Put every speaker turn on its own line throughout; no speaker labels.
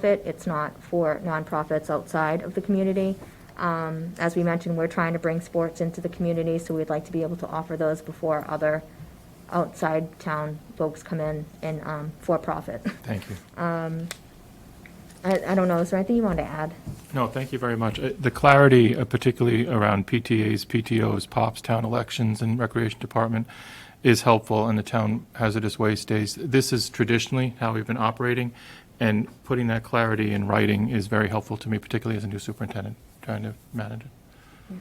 nonprofit. It's not for nonprofits outside of the community. Um, As we mentioned, we're trying to bring sports into the community, so we'd like to be able to offer those before other outside town folks come in and um, for profit.
Thank you.
I, I don't know, is there anything you want to add?
No, thank you very much. Uh, The clarity, uh, particularly around PTAs, PTOs, POPs, town elections, and Recreation Department, is helpful, and the town hazardous waste days. This is traditionally how we've been operating, and putting that clarity in writing is very helpful to me, particularly as a new superintendent, trying to manage it.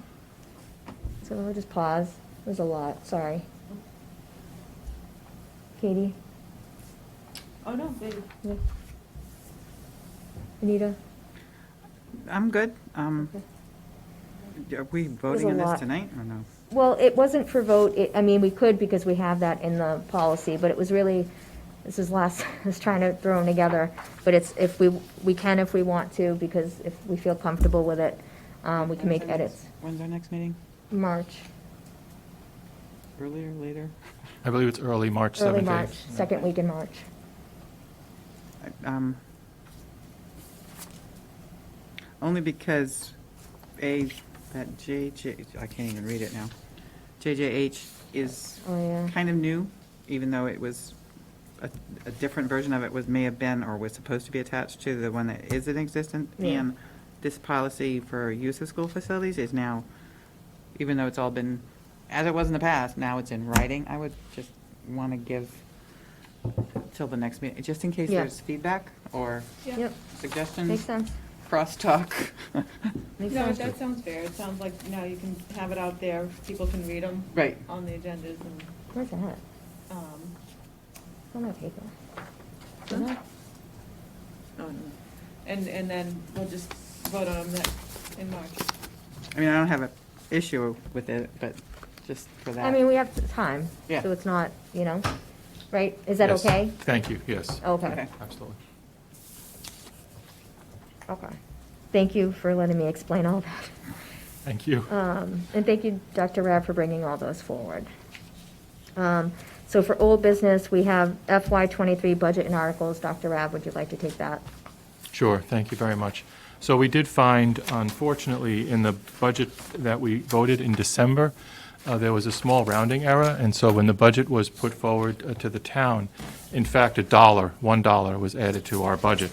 So we'll just pause. There's a lot, sorry. Katie,
Oh, no, baby.
Anita?
I'm good. Um,
Okay.
Are we voting
a
on
lot.
this tonight or no?
Well, it wasn't for vote, it, I mean, we could because we have that in the policy, but it was really, this is last, I was trying to throw them together. But it's, if we, we can if we want to, because if we feel comfortable with it, um, we can make
When's our next-
edits.
When's our next meeting?
March,
Earlier, later?
I believe it's early March 7th.
early March, second week in March.
I- um, Only because, A, that JJ, I can't even read it now. JJH is
Oh, yeah.
kind of new, even though it was, a, a different version of it was, may have been or was supposed to be attached to the one that is in existence.
Yeah.
And this policy for use of school facilities is now, even though it's all been, as it was in the past, now it's in writing. I would just want to give till the next meeting, just in case
Yeah.
there's feedback or
Yep, makes
suggestions,
sense,
crosstalk.
makes
No,
sense.
that sounds fair. It sounds like now you can have it out there, people can read them
Right.
on the agendas and,
Where's that?
um,
Where's my paper? Is
Huh?
that-
on- and, and then we'll just vote on that in March.
I mean, I don't have an issue with it, but just for that.
I mean, we have time,
Yeah.
so it's not, you know, right? Is that okay?
Thank you, yes,
Okay,
Okay.
absolutely.
okay. Thank you for letting me explain all that.
Thank you.
Um, And thank you, Dr. Rab, for bringing all those forward. Um, So for old business, we have FY '23 budget and articles. Dr. Rab, would you like to take that?
Sure, thank you very much. So we did find, unfortunately, in the budget that we voted in December, uh, there was a small rounding error, and so when the budget was put forward uh, to the town, in fact, a dollar, one dollar was added to our budget.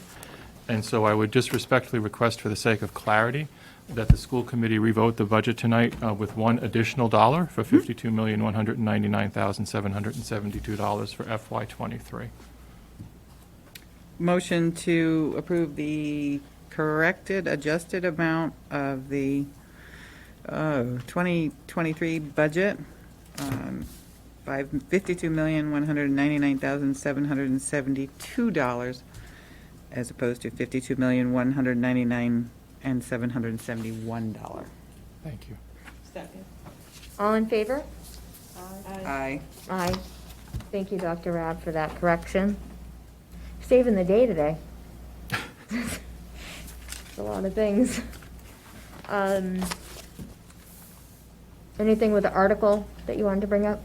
And so I would just respectfully request, for the sake of clarity, that the school committee revote the budget tonight uh, with one additional dollar for $52,199,772 for FY '23.
Motion to approve the corrected, adjusted amount of the uh, 2023 budget um, by $52,199,772 as opposed to $52,199,771.
Thank you.
Second.
All in favor?
Aye.
Aye.
Aye. Thank you, Dr. Rab, for that correction. Saving the day today. It's A lot of things. Um, Anything with the article that you wanted to bring up?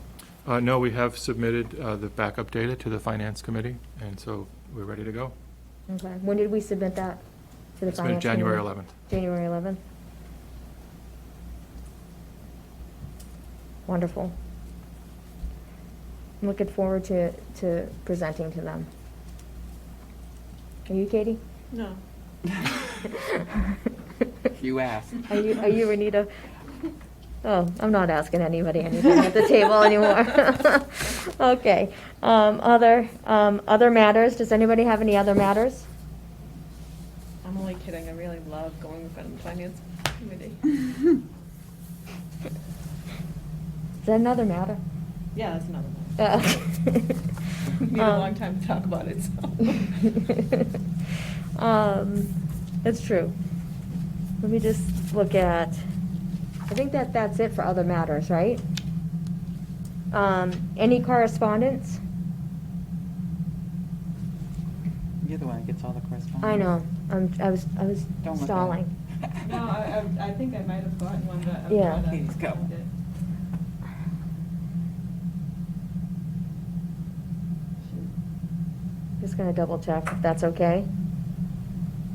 Uh, No, we have submitted uh, the backup data to the Finance Committee, and so we're ready to go.
Okay, when did we submit that to the
It's been
finance?
January
committee?
11th.
January 11th. Wonderful. I'm looking forward to, to presenting to them. Are you Katie?
No.
You asked.
Are you, are you Renita? Oh, I'm not asking anybody anything at the table anymore. Okay, um, other, um, other matters, does anybody have any other matters?
I'm only kidding. I really love going in front of the finance committee.
Is that another matter?
Yeah, that's another one.
Uh,
Need a
um,
long time to talk about it, so.
Um, That's true. Let me just look at, I think that that's it for other matters, right? Um, Any correspondence?
You're the one that gets all the correspondence.
I know, I'm, I was, I was
Don't look at it.
stalling.
No, I, I I think I might have gotten one, but I'm
Yeah.
trying to.
Please go.
find it.
Just gonna double check if that's okay.